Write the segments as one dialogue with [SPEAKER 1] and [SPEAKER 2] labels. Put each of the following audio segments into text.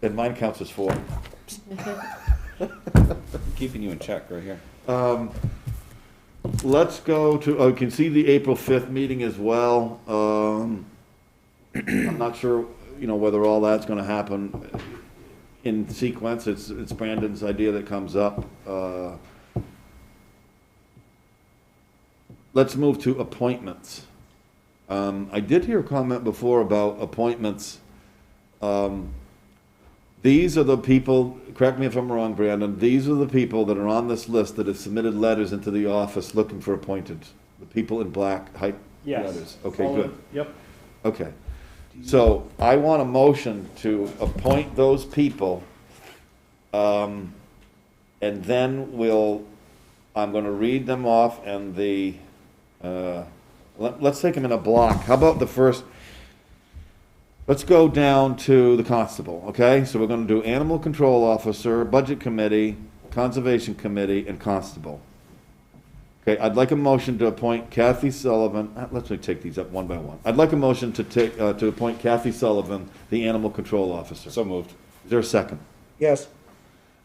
[SPEAKER 1] Then mine counts as four.
[SPEAKER 2] Keeping you in check right here.
[SPEAKER 1] Um, Let's go to, oh, you can see the April 5th meeting as well. Um, I'm not sure, you know, whether all that's going to happen in sequence. It's, it's Brandon's idea that comes up. Uh, Let's move to appointments. Um, I did hear a comment before about appointments. Um, These are the people, correct me if I'm wrong, Brandon, these are the people that are on this list that have submitted letters into the office looking for appointed. The people in black hype
[SPEAKER 3] Yes.
[SPEAKER 1] letters. Okay,
[SPEAKER 3] All
[SPEAKER 1] good.
[SPEAKER 3] in- Yep,
[SPEAKER 1] Okay. So I want a motion to appoint those people. Um, and then we'll, I'm gonna read them off and the, uh, let, let's take them in a block. How about the first? Let's go down to the constable, okay? So we're gonna do animal control officer, budget committee, conservation committee, and constable. Okay, I'd like a motion to appoint Kathy Sullivan, uh, let's really take these up one by one. I'd like a motion to take, uh, to appoint Kathy Sullivan, the animal control officer. Is
[SPEAKER 2] So moved.
[SPEAKER 1] there a second?
[SPEAKER 4] Yes.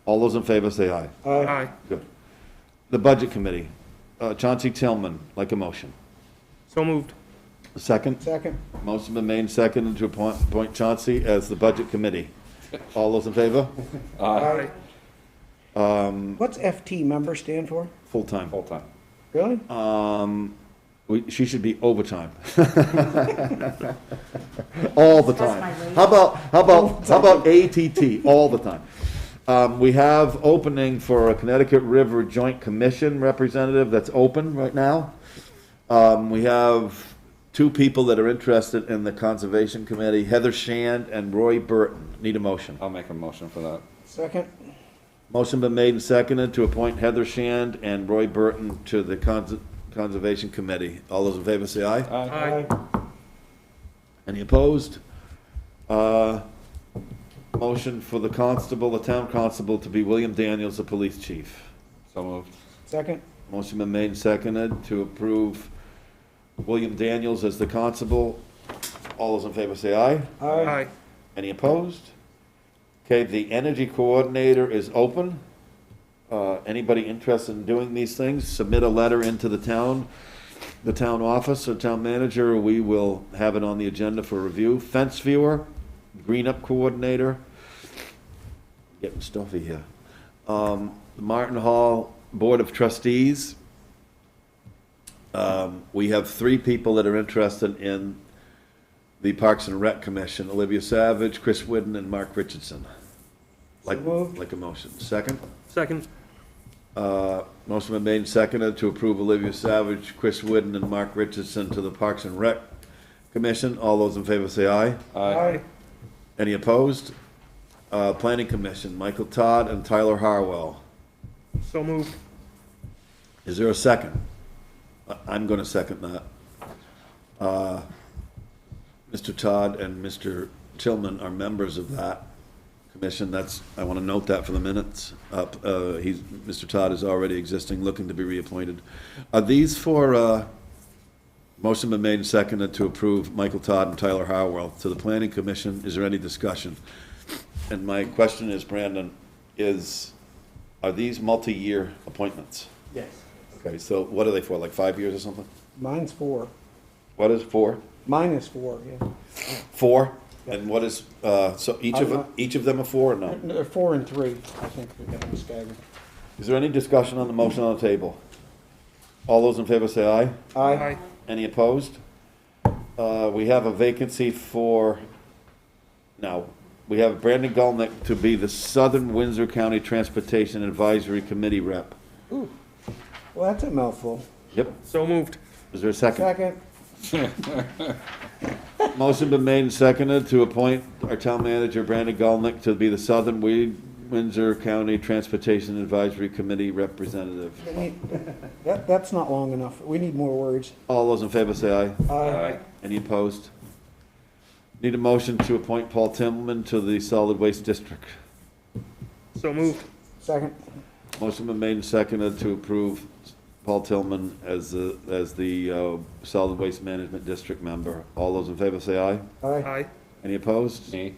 [SPEAKER 1] All those in favor say aye.
[SPEAKER 4] Aye.
[SPEAKER 1] Good. The Budget Committee, uh, Chauncey Tillman, like a motion.
[SPEAKER 5] So moved.
[SPEAKER 1] A Second,
[SPEAKER 4] Second?
[SPEAKER 1] motion been made, seconded to appoint appoint Chauncey as the Budget Committee. All those in favor?
[SPEAKER 4] Aye. What's FT member stand for?
[SPEAKER 1] Full-time.
[SPEAKER 2] Full time.
[SPEAKER 4] Really?
[SPEAKER 1] We- She should be overtime. All the
[SPEAKER 6] That's
[SPEAKER 1] time.
[SPEAKER 6] my rate.
[SPEAKER 1] How about, how about, how about ATT, all the time? Um, we have opening for a Connecticut River Joint Commission representative that's open right now. Um, we have two people that are interested in the Conservation Committee, Heather Shand and Roy Burton. Need a motion.
[SPEAKER 2] I'll make a motion for that.
[SPEAKER 4] Second?
[SPEAKER 1] Motion been made and seconded to appoint Heather Shand and Roy Burton to the Cons- Conservation Committee. All those in favor say aye.
[SPEAKER 2] Aye.
[SPEAKER 1] Any opposed? Uh, Motion for the constable, the town constable, to be William Daniels, the police chief.
[SPEAKER 2] So moved.
[SPEAKER 4] Second?
[SPEAKER 1] Motion been made and seconded to approve William Daniels as the constable. All those in favor say aye.
[SPEAKER 4] Aye.
[SPEAKER 1] Any opposed? Okay, the energy coordinator is open. Uh, Anybody interested in doing these things, submit a letter into the town, the town office or town manager. We will have it on the agenda for review. Fence viewer, green up coordinator. Getting stuffy here. Um, Martin Hall Board of Trustees. Um, We have three people that are interested in the Parks and Rec Commission, Olivia Savage, Chris Whidden, and Mark Richardson. Like,
[SPEAKER 4] moved.
[SPEAKER 1] like a motion. Second?
[SPEAKER 5] Second.
[SPEAKER 1] Uh, Motion been made and seconded to approve Olivia Savage, Chris Whidden, and Mark Richardson to the Parks and Rec Commission. All those in favor say aye.
[SPEAKER 2] Aye.
[SPEAKER 1] Any opposed? Uh, Planning Commission, Michael Todd and Tyler Harwell.
[SPEAKER 5] So moved.
[SPEAKER 1] Is there a second? I- I'm going to second that. Uh, Mr. Todd and Mr. Tillman are members of that commission. That's, I want to note that for the minutes. Up, uh, he's, Mr. Todd is already existing, looking to be reappointed. Are these for, uh, motion been made and seconded to approve Michael Todd and Tyler Harwell to the planning commission? Is there any discussion? And my question is, Brandon, is, are these multi-year appointments?
[SPEAKER 3] yes.
[SPEAKER 1] Okay, so what are they for, like five years or something?
[SPEAKER 4] Mine's four.
[SPEAKER 1] What is four?
[SPEAKER 4] Mine is four, yeah.
[SPEAKER 1] Four? And what is, uh, so each of, them- each of them are four or no?
[SPEAKER 4] No, They're four and three, I think, we got them staggered.
[SPEAKER 1] Is there any discussion on the motion on the table? All those in favor say aye.
[SPEAKER 4] Aye.
[SPEAKER 1] Any opposed? Uh, we have a vacancy for, no, we have Brandon Galnick to be the Southern Windsor County Transportation Advisory Committee rep.
[SPEAKER 4] Well, that's a mouthful.
[SPEAKER 1] Yep,
[SPEAKER 5] So moved.
[SPEAKER 1] is there a second?
[SPEAKER 4] Second?
[SPEAKER 1] Motion been made and seconded to appoint our town manager, Brandon Galnick, to be the Southern Weed Windsor County Transportation Advisory Committee representative.
[SPEAKER 4] We need- That, that's not long enough. We need more words.
[SPEAKER 1] All those in favor say aye.
[SPEAKER 2] Aye.
[SPEAKER 1] Any opposed? Need a motion to appoint Paul Tillman to the Solid Waste District.
[SPEAKER 5] So moved.
[SPEAKER 4] Second?
[SPEAKER 1] Motion been made and seconded to approve Paul Tillman as the, as the uh, Solid Waste Management District member. All those in favor say aye.
[SPEAKER 4] Aye.
[SPEAKER 5] Aye.
[SPEAKER 1] Any opposed?
[SPEAKER 2] Me.